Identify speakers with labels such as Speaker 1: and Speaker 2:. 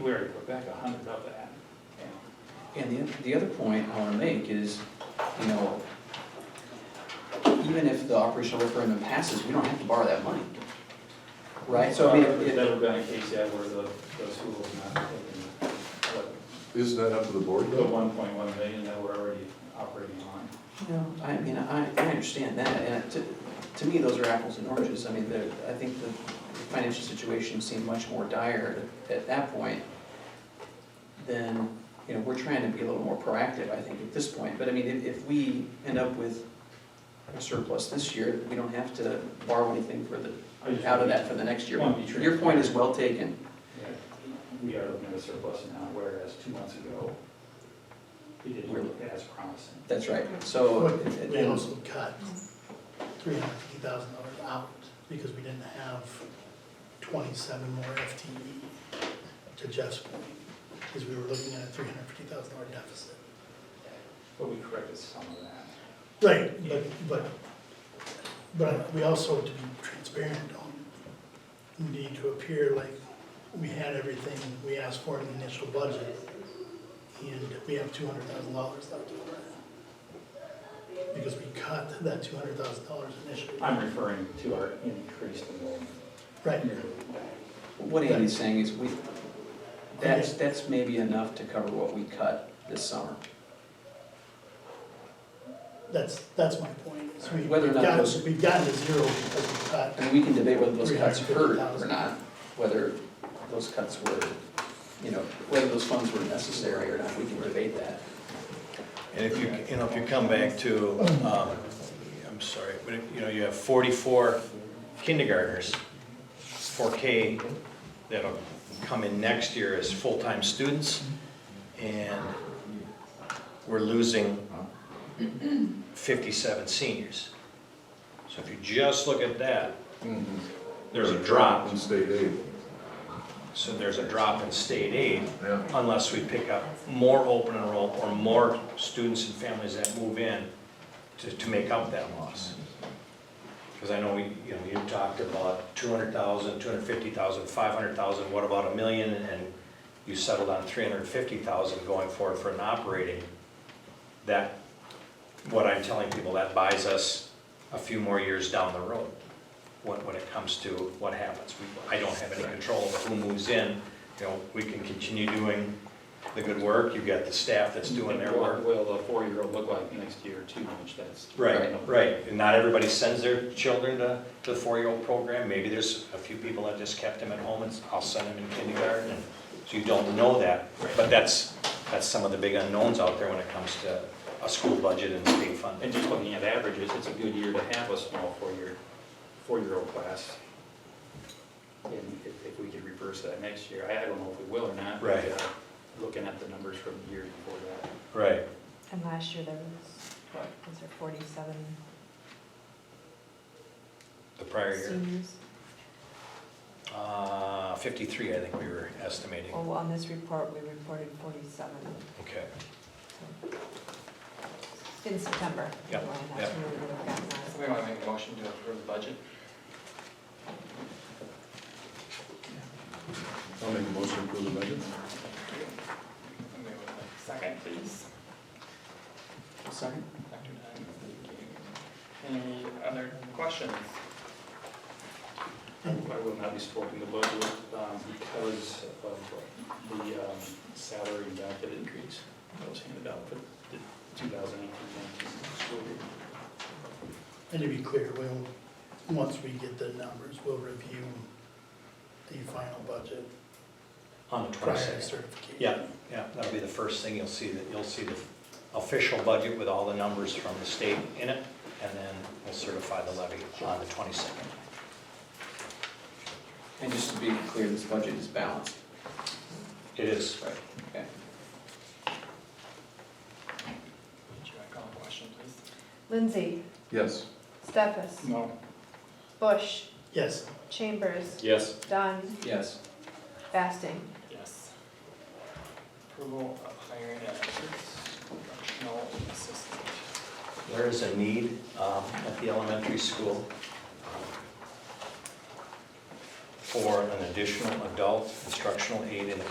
Speaker 1: we're in Quebec, a hundred of that.
Speaker 2: And the, the other point I wanna make is, you know, even if the operational referendum passes, we don't have to borrow that money. Right, so I mean,
Speaker 1: There's
Speaker 2: it-
Speaker 1: never been a case yet where the, the school has not taken, what,
Speaker 3: Isn't that up to the board
Speaker 1: the
Speaker 3: though?
Speaker 1: one point one million that we're already operating on.
Speaker 2: you know, I mean, I, I understand that, and to, to me, those are apples and oranges, I mean, the, I think the financial situation seemed much more dire at that point than, you know, we're trying to be a little more proactive, I think, at this point, but I mean, if, if we end up with a surplus this year, we don't have to borrow anything for the
Speaker 1: I just-
Speaker 2: out of that for the next year.
Speaker 1: Want to be transparent.
Speaker 2: Your point is well taken.
Speaker 1: Yeah, We are looking at a surplus now, whereas two months ago, we didn't
Speaker 2: We're-
Speaker 1: look as promising.
Speaker 2: That's right. So, uh,
Speaker 4: But
Speaker 2: it- it-
Speaker 4: We also cut three hundred fifty thousand dollars out because we didn't have twenty-seven more FTE to Jeff's point, because we were looking at a three hundred fifty thousand dollar deficit.
Speaker 1: But we corrected some of that.
Speaker 4: Right, but, but, but we also, to be transparent, don't need to appear like we had everything we asked for in the initial budget, and we have two hundred thousand dollars left over. Because we cut that two hundred thousand dollars initially.
Speaker 1: I'm referring to our increased enrollment.
Speaker 4: Right,
Speaker 2: what Andy's saying is we, that's, that's maybe enough to cover what we cut this summer.
Speaker 4: that's, that's my point, is we-
Speaker 2: Whether or
Speaker 4: we've
Speaker 2: not
Speaker 4: gotten,
Speaker 2: those-
Speaker 4: we've gotten to zero because we cut.
Speaker 2: I mean, we can debate whether those cuts hurt or not, whether those cuts were, you know, whether those funds were necessary or not, we can debate that.
Speaker 5: And if you, you know, if you come back to, um, I'm sorry, but if, you know, you have forty-four kindergartners, four K, that'll come in next year as full-time students, and we're losing fifty-seven seniors. So if you just look at that, there's a drop,
Speaker 3: In state aid.
Speaker 5: so there's a drop in state aid,
Speaker 3: Yeah.
Speaker 5: unless we pick up more open enroll or more students and families that move in to, to make up that loss. Because I know we, you know, you talked about 200,000, 250,000, 500,000, what about a million? And you settled on 350,000 going forward for an operating. That, what I'm telling people, that buys us a few more years down the road when, when it comes to what happens. We- I don't have any control over who moves in, you know, we can continue doing the good work, you've got the staff that's doing their work.
Speaker 1: What will the four-year-old look like next year too much, that's.
Speaker 5: Right, right, and not everybody sends their children to, to the four-year-old program, maybe there's a few people that just kept them at home and s- I'll send them in kindergarten, and, so you don't know that, but that's, that's some of the big unknowns out there when it comes to a school budget and state funding.
Speaker 1: And just looking at averages, it's a good year to have a small four-year, four-year-old class. And if, if we could reverse that next year, I I don't know if we will or not. but,
Speaker 5: Right.
Speaker 1: uh, Looking at the numbers from the year before that.
Speaker 5: Right,
Speaker 6: And last year there was, what, was there forty-seven
Speaker 5: the prior year,
Speaker 6: seniors?
Speaker 5: uh, fifty-three, I think we were estimating,
Speaker 6: Well, on this report, we reported forty-seven,
Speaker 5: okay.
Speaker 6: so. In September.
Speaker 5: Yep,
Speaker 6: Well, that's when we would have gotten that.
Speaker 7: Somebody want to make a motion to approve the budget?
Speaker 3: I'll make a motion to approve the budget.
Speaker 7: Somebody would like, Second, please.
Speaker 2: Second?
Speaker 7: Dr. Dunn, thank you. Any other questions?
Speaker 1: I will not be supporting the budget um, because of the um, salary and benefit increase that was handed out for the 2018-19 school year.
Speaker 4: And to be clear, we'll, once we get the numbers, we'll review the final budget
Speaker 5: On the
Speaker 4: prior to
Speaker 5: twenty-second.
Speaker 4: certification.
Speaker 5: Yeah, yeah, that'll be the first thing you'll see, that you'll see the official budget with all the numbers from the state in it, and then we'll certify the levy on the 22nd.
Speaker 2: And just to be clear, this budget is balanced.
Speaker 5: It is.
Speaker 2: Right. Okay.
Speaker 7: Should I call a question, please?
Speaker 8: Lindsay,
Speaker 3: Yes.
Speaker 8: Stefas,
Speaker 1: No.
Speaker 8: Bush,
Speaker 4: Yes,
Speaker 8: Chambers,
Speaker 1: Yes.
Speaker 8: Dunn,
Speaker 2: Yes.
Speaker 8: Basting.
Speaker 7: Yes. Approval of hiring an instructional assistant.
Speaker 5: There is a need um, at the elementary school for an additional adult instructional aid in the